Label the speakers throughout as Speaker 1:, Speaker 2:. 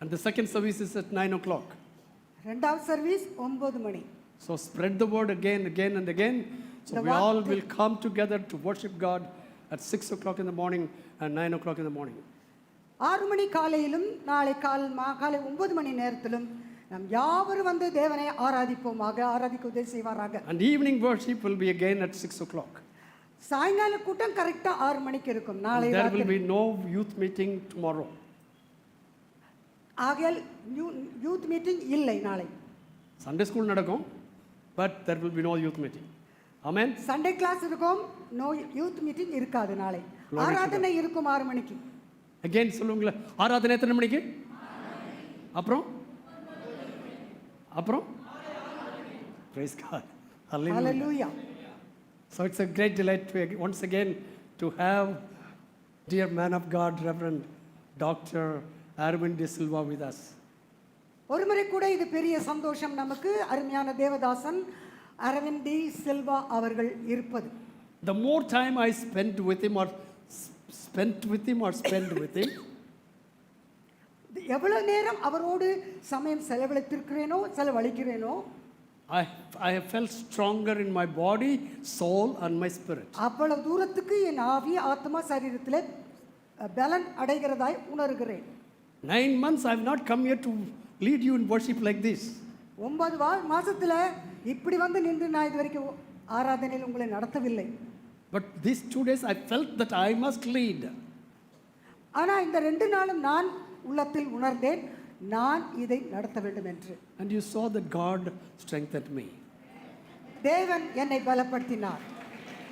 Speaker 1: and the second service is at 9 o'clock.
Speaker 2: ரெண்டாவது service ஒன்பது மணி
Speaker 1: So spread the word again, again, and again. So
Speaker 2: The
Speaker 1: we
Speaker 2: one
Speaker 1: all
Speaker 2: thing-
Speaker 1: will come together to worship God at 6 o'clock in the morning and 9 o'clock in the morning.
Speaker 2: ஆறு மணி காலையிலும் நாளை கால் மா காலை ஒன்பது மணி நேரத்திலும் நாம் யாவரும் வந்து தேவனை ஆராதிப்போமாக ஆராதிக்க உதவி செய்வாராக
Speaker 1: And evening worship will be again at 6 o'clock.
Speaker 2: சாயங்கால கூட்டம் கரெக்டா ஆறு மணிக்கு இருக்கும் நாளை
Speaker 1: There will
Speaker 2: ராத்திரி.
Speaker 1: be no youth meeting tomorrow.
Speaker 2: ஆகையால் யூத் மீட்டிங் இல்லை நாளை
Speaker 1: Sunday school நடக்கும் but there will be no youth meeting. Amen.
Speaker 2: Sunday class இருக்கும் நோ யூத் மீட்டிங் இருக்காது நாளை
Speaker 1: Glory to
Speaker 2: ஆராதனை இருக்கும் ஆறு மணிக்கு
Speaker 1: again சொல்லுங்களேன் ஆராதனை எத்தனை மணிக்கு அப்புறம் அப்புறம் praise god hallelujah
Speaker 2: hallelujah
Speaker 1: So it's a great delight to, once again to have dear man of God, Reverend Dr. Arvind De Silva with us.
Speaker 2: ஒரு முறை கூட இது பெரிய சந்தோஷம் நமக்கு அருமையான தேவதாசன் அரவிந்த் டி சில்வா அவர்கள் இருப்பது
Speaker 1: The more time I spent with him or s- spent with him or spend with him,
Speaker 2: எவ்வளவு நேரம் அவரோடு சமயம் செலவழித்திருக்கிறேனோ செலவழிக்கிறேனோ
Speaker 1: I, I have felt stronger in my body, soul and my spirit.
Speaker 2: அவ்வளவு தூரத்துக்கு என் ஆவி ஆத்மா சரீரத்தில் பலன் அடைகிறதாய் உணர்கிறேன்
Speaker 1: Nine months I have not come here to lead you in worship like this.
Speaker 2: ஒன்பது வா மாசத்துல இப்படி வந்து நின்று நான் இது வரைக்கும் ஆராதனையில் உங்களை நடத்தவில்லை
Speaker 1: But these two days I felt that I must lead.
Speaker 2: ஆனா இந்த ரெண்டு நாளும் நான் உள்ளத்தில் உணர்ந்தேன் நான் இதை நடத்த வேண்டும் என்று
Speaker 1: And you saw that God strengthened me.
Speaker 2: தேவன் என்னை பலப்படுத்தினார்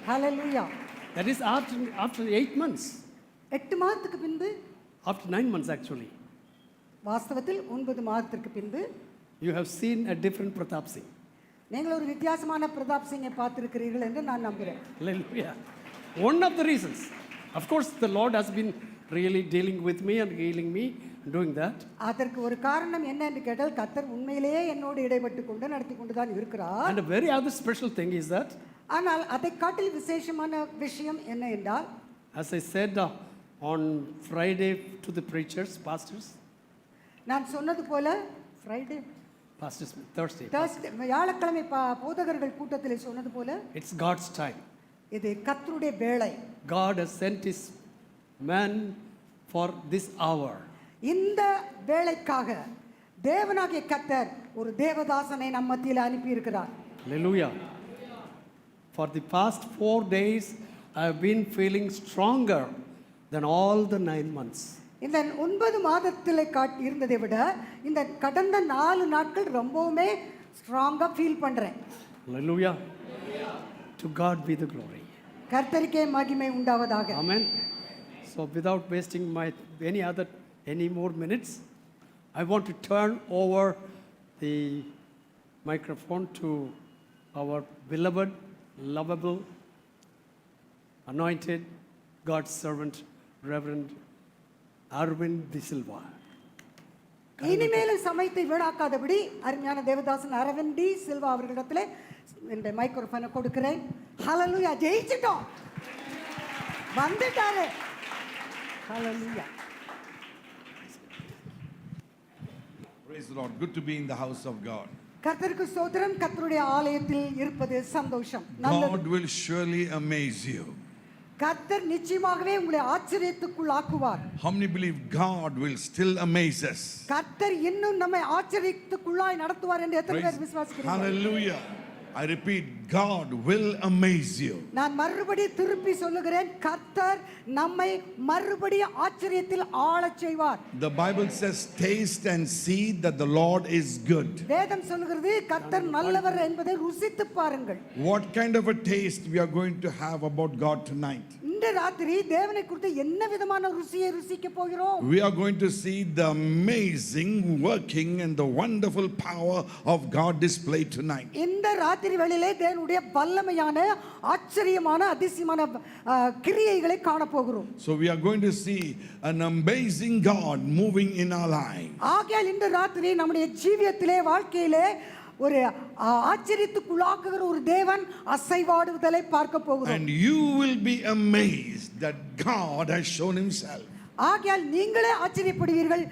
Speaker 2: ஹalleluya
Speaker 1: That is after, after eight months,
Speaker 2: எட்டு மாதத்துக்கு பின்பு
Speaker 1: after nine months actually.
Speaker 2: வாஸ்தவத்தில் ஒன்பது மாதத்திற்கு பின்பு
Speaker 1: You have seen a different Pratap Singh.
Speaker 2: நீங்கள் ஒரு வித்தியாசமான பிரதாப் சிங்கை பார்த்திருக்கிறீர்கள் என்று நான் நம்புகிறேன்
Speaker 1: Hallelujah. One of the reasons. Of course, the Lord has been really dealing with me and healing me and doing that.
Speaker 2: அதற்கு ஒரு காரணம் என்ன என்று கேட்டால் கத்தர் உண்மையிலேயே என்னோடு இடைப்பட்டு கொண்டு நடத்தி கொண்டு தான் இருக்கிறார்
Speaker 1: And a very other special thing is that,
Speaker 2: ஆனால் அதை காட்டில் விசேஷமான விஷயம் என்ன என்றால்
Speaker 1: as I said uh, on Friday to the preachers, pastors,
Speaker 2: நான் சொன்னது போல ஃப்ரைடே
Speaker 1: pastors, Thursday,
Speaker 2: தேர்ஸ்டே வியாழக்கிழமை பா போதகர்கள் கூட்டத்தில் சொன்னது போல
Speaker 1: it's God's time.
Speaker 2: இது கத்தருடைய வேலை
Speaker 1: God has sent his man for this hour.
Speaker 2: இந்த வேலைக்காக தேவனாகிய கத்தர் ஒரு தேவதாசனை நம் மத்தியில் அனுப்பியிருக்கிறார்
Speaker 1: Hallelujah. For the past four days, I have been feeling stronger than all the nine months.
Speaker 2: இந்த ஒன்பது மாதத்தில் காட் இருந்ததை விட இந்த கடந்த நாலு நாட்கள் ரொம்பவுமே ஸ்ட்ராங்காக ஃபீல் பண்ணுறேன்
Speaker 1: Hallelujah. To God be the glory.
Speaker 2: கர்த்தருக்கே மகிமை உண்டாவதாக
Speaker 1: Amen. So without wasting my any other any more minutes, I want to turn over the microphone to our beloved, lovable, anointed God's servant, Reverend Arvind De Silva.
Speaker 2: இனிமேலும் சமயத்தை வீணாக்காதபடி அருமையான Devadasan Aravind D Silva அவர்களிடத்துல இந்த மைக்ரோஃபோனை கொடுக்கிறேன் ஹalleluya ஜெயிச்சிட்டோம் வந்துட்டாரு ஹalleluya
Speaker 3: Praise the Lord. Good to be in the house of God.
Speaker 2: கர்த்தருக்கு சோதரம் கர்த்தருடைய ஆலயத்தில் இருப்பது சந்தோஷம் நல்லது
Speaker 3: God will surely amaze you.
Speaker 2: கர்த்தர் நிச்சயமாகவே உங்களை ஆச்சரியத்துக்குள்ளாக்குவார்
Speaker 3: How many believe God will still amaze us?
Speaker 2: கர்த்தர் இன்னும் நம்மை ஆச்சரியத்துக்குள்ளாய் நடத்துவார் என்று எத்தனை
Speaker 3: Praise-
Speaker 2: பேர் விசுவாசிக்கிறீங்க
Speaker 3: Hallelujah. I repeat, God will amaze you.
Speaker 2: நான் மறுபடி திருப்பி சொல்லுகிறேன் கர்த்தர் நம்மை மறுபடியும் ஆச்சரியத்தில் ஆளச் செய்வார்
Speaker 3: The Bible says, taste and see that the Lord is good.
Speaker 2: வேதம் சொல்லுகிறது கர்த்தர் நல்லவர் என்பதை ருசித்து பாருங்கள்
Speaker 3: What kind of a taste we are going to have about God tonight?
Speaker 2: இந்த ராத்திரி தேவனை குறித்து என்ன விதமான ருசியை ருசிக்க போகிறோம்
Speaker 3: We are going to see the amazing working and the wonderful power of God displayed tonight.
Speaker 2: இந்த ராத்திரி வேளையிலே தேவனுடைய வல்லமையான ஆச்சரியமான அதிசயமான ஆ, கிரியைகளை காணப்போகிறோம்
Speaker 3: So we are going to see an amazing God moving in our life.
Speaker 2: ஆகையால் இந்த ராத்திரி நம்முடைய ஜீவியத்திலே வாழ்க்கையிலே ஒரு ஆ, ஆச்சரியத்துக்குள்ளாக்குகிற ஒரு தேவன் அசைவாடுதலை பார்க்க போகிறோம்
Speaker 3: And you will be amazed that God has shown Himself.
Speaker 2: ஆகையால் நீங்களே ஆச்சரியப்படுவீர்கள்